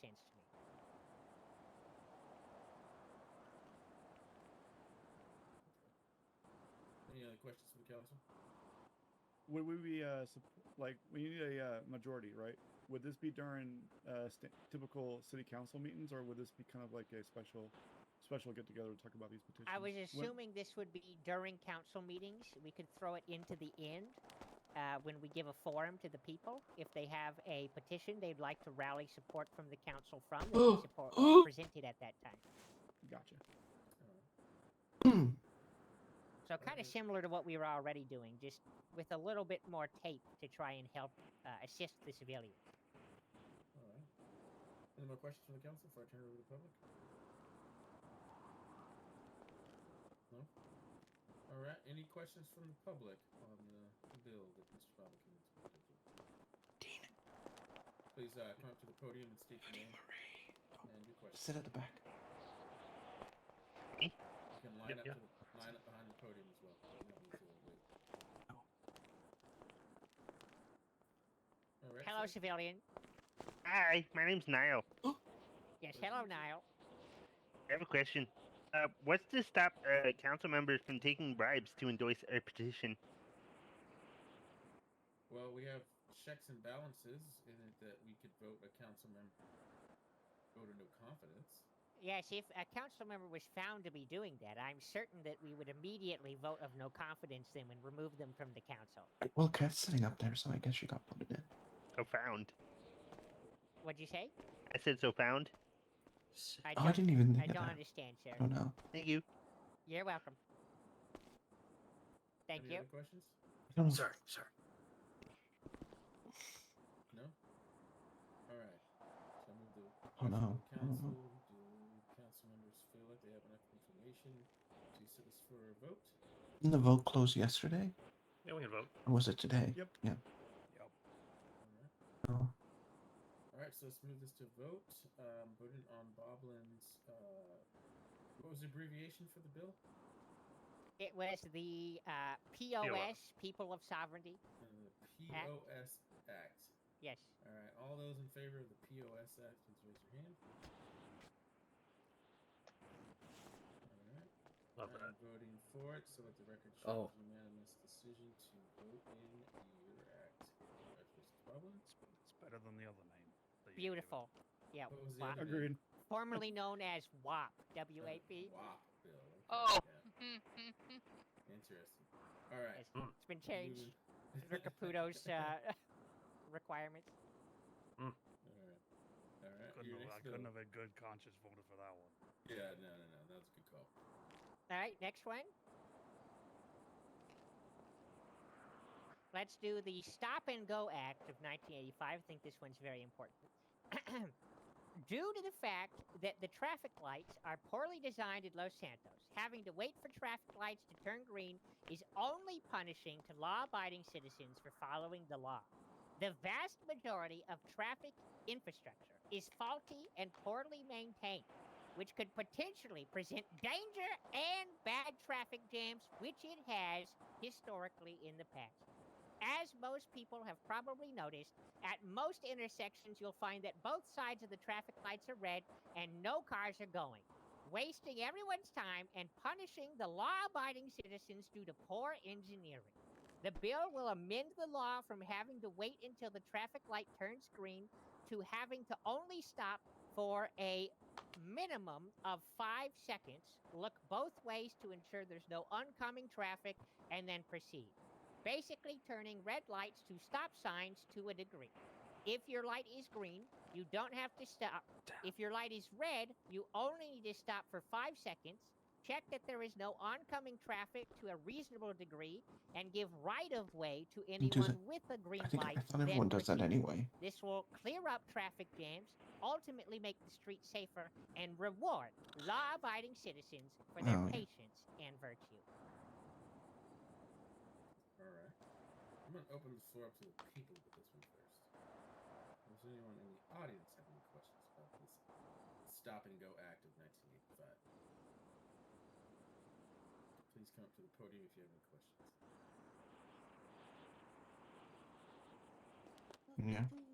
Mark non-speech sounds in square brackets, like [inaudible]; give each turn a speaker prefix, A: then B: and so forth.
A: sense to me.
B: Any other questions from council?
C: Would we be uh sup- like we need a uh, majority, right? Would this be during uh st- typical city council meetings, or would this be kind of like a special special get together to talk about these petitions?
A: I was
C: When-
A: assuming this would be during council meetings. We could throw it into the end uh, when we give a forum to the people. If they have a petition they'd like to rally support from the council from, they can support presented at that time.
C: gotcha.
A: So kind of
B: Right.
A: similar to what we were already doing, just with a little bit more tape to try and help uh, assist the civilians.
B: All right. Any more questions from the council before I turn it over to the public? No? All right. Any questions from the public on the bill that Mr. Bobbikin is proposing? Please uh, come up to the podium and state your name and your question.
D: Sit at the back.
B: You can line,
E: Yep,
B: up,
E: yeah.
B: to the, line up behind the podium as well. You don't need to wait.
D: Oh.
B: All right,
A: Hello,
B: sir.
A: civilian.
E: Hi, my name's Niall.
A: Yes,
B: Pleasure
A: hello,
B: to meet you.
A: Niall.
E: I have a question. Uh, what's to stop uh, council members from taking bribes to endorse a petition?
B: Well, we have checks and balances in it that we could vote a council member vote of no confidence.
A: Yes, if a council member was found to be doing that, I'm certain that we would immediately vote of no confidence them and remove them from the council.
D: Well, Kat's sitting up there, so I guess she got voted in.
E: So found.
A: What'd you say?
E: I said so found.
A: I
D: Oh, I
A: don't,
D: didn't even
A: I
D: think of
A: don't
D: that.
A: understand,
D: I
A: sir.
D: don't know.
E: Thank you.
A: You're welcome. Thank
B: Any
A: you.
B: other questions?
D: I don't know.
F: Sorry, sorry.
B: No? Alright. So I move the
D: Oh, no. I don't
B: council.
D: know.
B: Do council members feel like they have enough information to set this for a vote?
D: Didn't the vote close yesterday?
F: Yeah, we can vote.
D: Or was it today?
C: Yep.
D: Yeah.
B: Alright.
D: Oh.
B: Alright, so let's move this to vote. Um, voting on Boblin's uh, what was the abbreviation for the bill?
A: It was the uh, POS, People of Sovereignty.
B: Uh, the POS Act.
A: Yes.
B: Alright, all those in favor of the POS Act, please raise your hand. Alright.
F: Love that.
B: I'm voting for it, so let the record
F: Oh.
B: show it's unanimous decision to vote in your act. Congratulations, Bubba.
G: It's, it's better than the other name. that you gave it.
A: Beautiful. Yeah.
B: What was the
A: WAP.
B: other name?
C: Agreed.
A: Formerly known as WAP.
B: Uh,
A: W-A-P.
B: WAP bill. Okay,
H: Oh.
B: yeah, Interesting. All right.
A: It's, it's been
B: [laughs]
A: changed.
B: moving-
A: Mr. Caputo's uh, [laughs] requirements.
B: [laughs] All right. All right.
G: Couldn't
B: Your
G: have-
B: next
G: I couldn't
B: bill.
G: have in good conscience voted for that one.
B: Yeah, no, no, no. That was a good call.
A: All right, next one. Let's do the Stop and Go Act of 1985. I think this one's very important. [clears throat] Due to the fact that the traffic lights are poorly designed in Los Santos, having to wait for traffic lights to turn green is only punishing to law abiding citizens for following the law. The vast majority of traffic infrastructure is faulty and poorly maintained which could potentially present danger and bad traffic jams, which it has historically in the past. As most people have probably noticed, at most intersections you'll find that both sides of the traffic lights are red and no cars are going, wasting everyone's time and punishing the law abiding citizens due to poor engineering. The bill will amend the law from having to wait until the traffic light turns green to having to only stop for a minimum of five seconds, look both ways to ensure there's no oncoming traffic, and then proceed. Basically, turning red lights to stop signs to a degree. If your light is green, you don't have to stop. If your light is red, you only need to stop for five seconds. Check that there is no oncoming traffic to a reasonable degree and give right of way to
D: do that.
A: anyone with a green
D: I think
A: light.
D: I thought
A: then
D: everyone does that
A: proceed.
D: anyway.
A: This will clear up traffic jams, ultimately make the street safer, and reward law abiding citizens for their
D: Oh, yeah.
A: patience and virtue.
B: All right. I'm going to open the floor up to the people with this one first. Does anyone in the audience have any questions about this Stop and Go Act of 1985? Please come up to the podium if you have any questions.
D: Yeah.